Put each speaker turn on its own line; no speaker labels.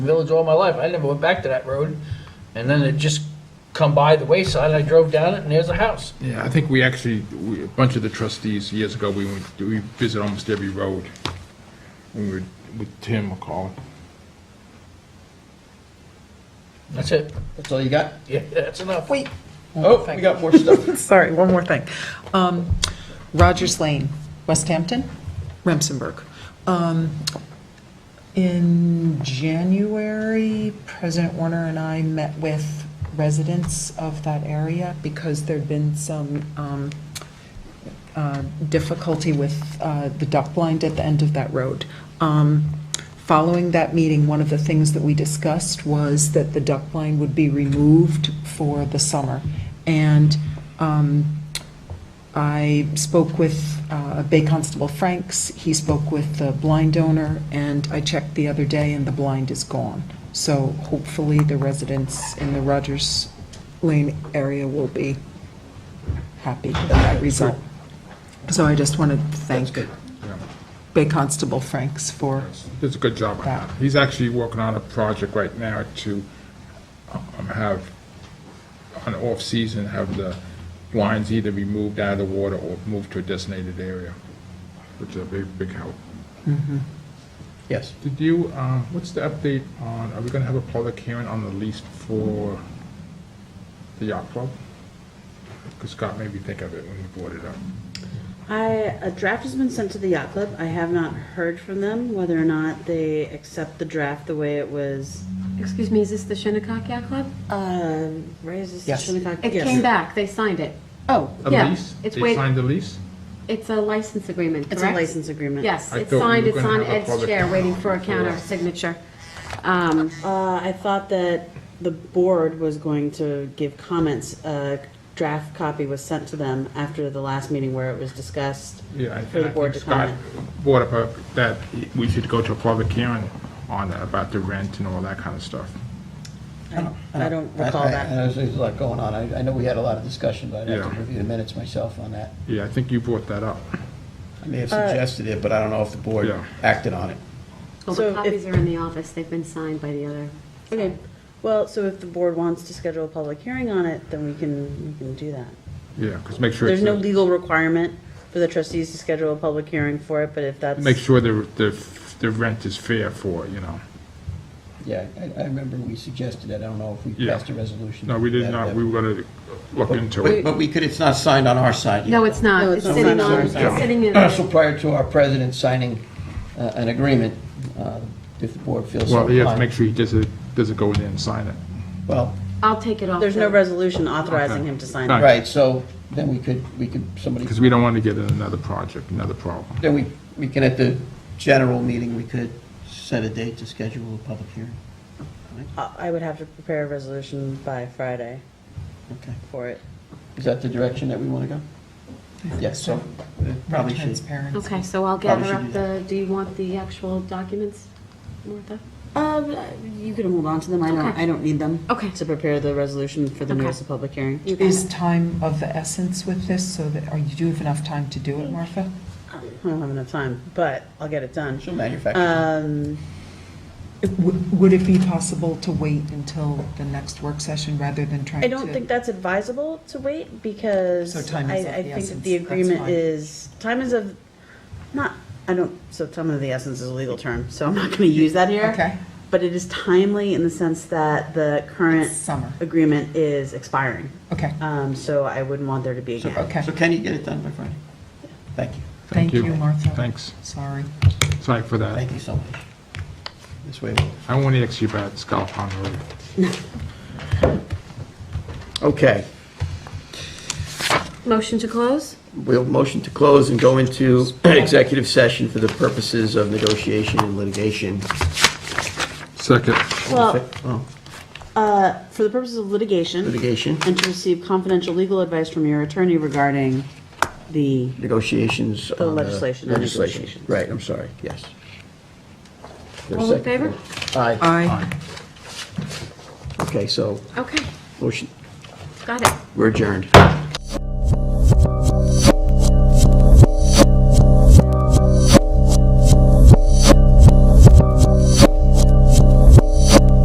village all my life. I never went back to that road. And then it just come by the wayside. I drove down it and there's a house.
Yeah, I think we actually, we- a bunch of the trustees, years ago, we went, we visited almost every road. We were with Tim McCall.
That's it.
That's all you got?
Yeah, that's enough.
Wait,
Oh, we got more stuff.
sorry, one more thing. Um, Rogers Lane, West Hampton, Remsenburg. Um, In January, President Warner and I met with residents of that area because there'd been some um, uh, difficulty with uh, the duck blind at the end of that road. Um, Following that meeting, one of the things that we discussed was that the duck blind would be removed for the summer. And um, I spoke with uh, Bay Constable Franks, he spoke with the blind owner, and I checked the other day, and the blind is gone. So hopefully, the residents in the Rogers Lane area will be happy with that result. So I just want to thank Bay Constable Franks for,
Does a good job on that. He's actually working on a project right now to um, have, on off-season, have the lines either be moved out of the water or moved to a designated area, which is a big, big help.
Yes.
Did you, um, what's the update on, are we going to have a public hearing on the lease for the yacht club? Because Scott made me think of it when he brought it up.
I, a draft has been sent to the yacht club. I have not heard from them whether or not they accept the draft the way it was.
Excuse me, is this the Shinnecock Yacht Club?
Uh, raised this
Yes.
Shinnecock.
It
yes.
came back, they signed it.
oh,
A
Yeah,
lease?
it's
They
wait-
signed the lease?
It's a license agreement,
It's
correct?
a license agreement.
Yes,
I
it's
thought we
signed,
were
it's
gonna
on
have a
Ed's
public
chair, waiting for a
hearing.
counter signature. Um,
Uh, I thought that the board was going to give comments. A draft copy was sent to them after the last meeting where it was discussed.
Yeah, I-
For the
I
board
think
to
Scott
comment.
brought up uh, that we should go to a public hearing on that, about the rent and all that kind of stuff.
I don't- I don't recall
I- I-
that.
I know There's a lot going on. I I know we had a lot of discussion, but I'd have
Yeah.
to review the minutes myself on that.
Yeah, I think you brought that up.
I may have suggested it, but I don't know if the board
Yeah.
acted on it.
Well,
So
the
if-
copies are in the office, they've been signed by the other.
Okay, well, so if the board wants to schedule a public hearing on it, then we can, we can do that.
Yeah, because make sure,
There's no
it's-
legal requirement for the trustees to schedule a public hearing for it, but if that's.
make sure the, the, the rent is fair for, it, you know.
Yeah, I- I remember we suggested it. I don't know if we
Yeah.
passed a resolution.
No, we did
that-
not,
that-
we were going to look into
But
it.
but we could, it's not signed on our side. yet.
No, it's not,
No,
it's
it's not
sitting
signed.
on, it's
Sorry.
sitting in.
So prior to our president signing uh, an agreement, uh, if the board feels so
Well, you have to make
inclined.
sure he doesn't, doesn't go in there and sign it.
Well,
I'll take it off.
There's no
the-
resolution authorizing him to sign it.
Right.
right, so then we could, we could, somebody,
Because we don't want to get in another project, another problem.
then we, we can, at the general meeting, we could set a date to schedule a public hearing.
I I would have to prepare a resolution by Friday
Okay.
for it.
Is that the direction that we want to go? Yes, so it probably should.
transparent.
Okay, so I'll
Probably
gather up
should do
the, do you want the actual documents, Martha?
Um, you can hold on to them, I don't,
Okay.
I don't need them.
Okay.
To prepare the resolution for the
Okay.
notice of public hearing.
You got
Is
it?
time of the essence with this, so that, or you do have enough time to do it, Martha?
I don't have enough time, but I'll get it done.
She'll
Uh,
manufacture.
Um,
It w- Would it be possible to wait until the next work session rather than trying
I
to?
don't think that's advisable to wait
So
because I,
time is of the
I think that
essence,
the
that's
agreement
fine.
is, time is of, not, I don't, so time of the essence is a legal term, so I'm not gonna use that here.
Okay.
But it is timely in the sense that the current
It's summer.
agreement is expiring.
Okay,
Um, so I wouldn't want there to be a gap.
okay.
So can you get it done by Friday? Thank you.
Thank you, Martha.
Thanks.
Sorry.
Sorry for that.
Thank you so much. This way. we'll-
I want to ask you about Scott Pond Road.
Okay,
Motion to close?
we'll motion to close and go into executive session for the purposes of negotiation and litigation.
Second.
Well,
Oh,
uh, for the purposes of litigation
Litigation,
and to receive confidential legal advice from your attorney regarding the,
negotiations. on The
legislation and
Legislation,
negotiations.
right, I'm sorry, yes. There's a
All in
second.
favor?
Aye,
Aye.
okay, so
Okay,
motion,
got it.
we're adjourned.